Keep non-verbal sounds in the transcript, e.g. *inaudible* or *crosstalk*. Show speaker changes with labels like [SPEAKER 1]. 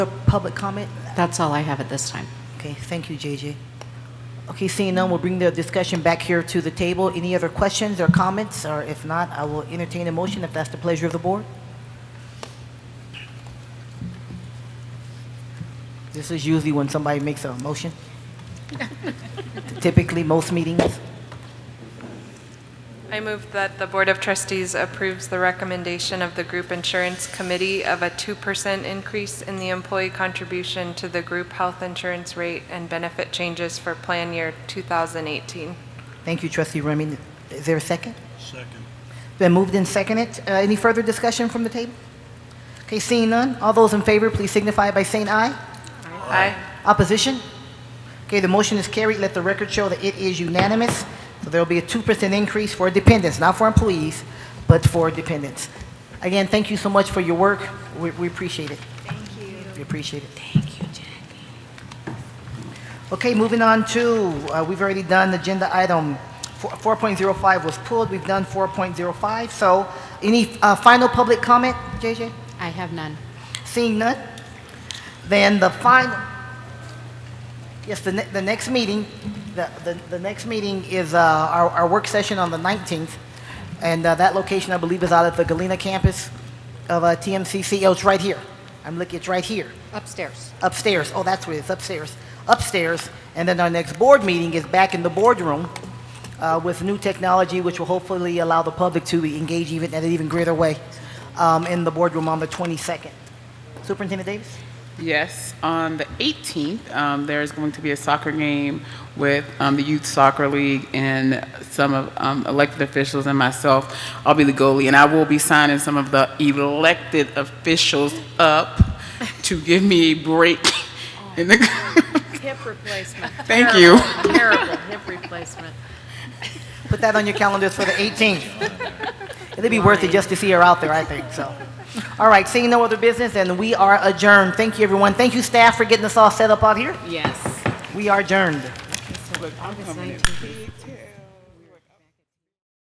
[SPEAKER 1] Public comment?
[SPEAKER 2] That's all I have at this time.
[SPEAKER 1] Okay, thank you, JJ. Okay, seeing none, we'll bring the discussion back here to the table. Any other questions or comments? Or if not, I will entertain a motion if that's the pleasure of the board. This is usually when somebody makes a motion. Typically, most meetings.
[SPEAKER 3] I move that the Board of Trustees approves the recommendation of the Group Insurance Committee of a 2% increase in the employee contribution to the group health insurance rate and benefit changes for plan year 2018.
[SPEAKER 1] Thank you, trustee Remy. Is there a second?
[SPEAKER 4] Second.
[SPEAKER 1] Been moved and seconded. Uh, Any further discussion from the table? Okay, seeing none, all those in favor, please signify by saying aye.
[SPEAKER 3] Aye.
[SPEAKER 1] Opposition? Okay, the motion is carried. Let the record show that it is unanimous. So there'll be a 2% increase for dependents, not for employees, but for dependents. Again, thank you so much for your work. We we appreciate it. Thank you. We appreciate it. Okay, moving on to, uh, we've already done agenda item four- 4.05 was pulled. We've done 4.05. So any uh, final public comment, JJ?
[SPEAKER 2] I have none.
[SPEAKER 1] Seeing none, then the final, yes, the, ne- the next meeting, the, the, the next meeting is uh, our, our work session on the 19th, and uh, that location, I believe, is out at the Galena campus of uh, TMCC. Oh, it's right here. I'm looking, it's right here,
[SPEAKER 5] Upstairs.
[SPEAKER 1] upstairs. Oh, that's where it is, upstairs, upstairs. And then our next board meeting is back in the boardroom uh, with new technology, which will hopefully allow the public to engage even, in an even greater way um, in the boardroom on the 22nd. Superintendent Davis?
[SPEAKER 6] Yes, on the 18th, um, there is going to be a soccer game with um, the Youth Soccer League and some of um, elected officials and myself. I'll be the goalie, and I will be signing some of the elected officials up to give me a break. *laughs* In the
[SPEAKER 5] Hip replacement.
[SPEAKER 6] Thank you.
[SPEAKER 5] Terrible, Terrible hip replacement.
[SPEAKER 1] Put that on your calendars for the 18th. It'd be worth it just to see her out there, I think, so. All right, seeing no other business, and we are adjourned. Thank you, everyone. Thank you, staff, for getting us all set up out here.
[SPEAKER 2] Yes.
[SPEAKER 1] We are adjourned.
[SPEAKER 2] August 19th.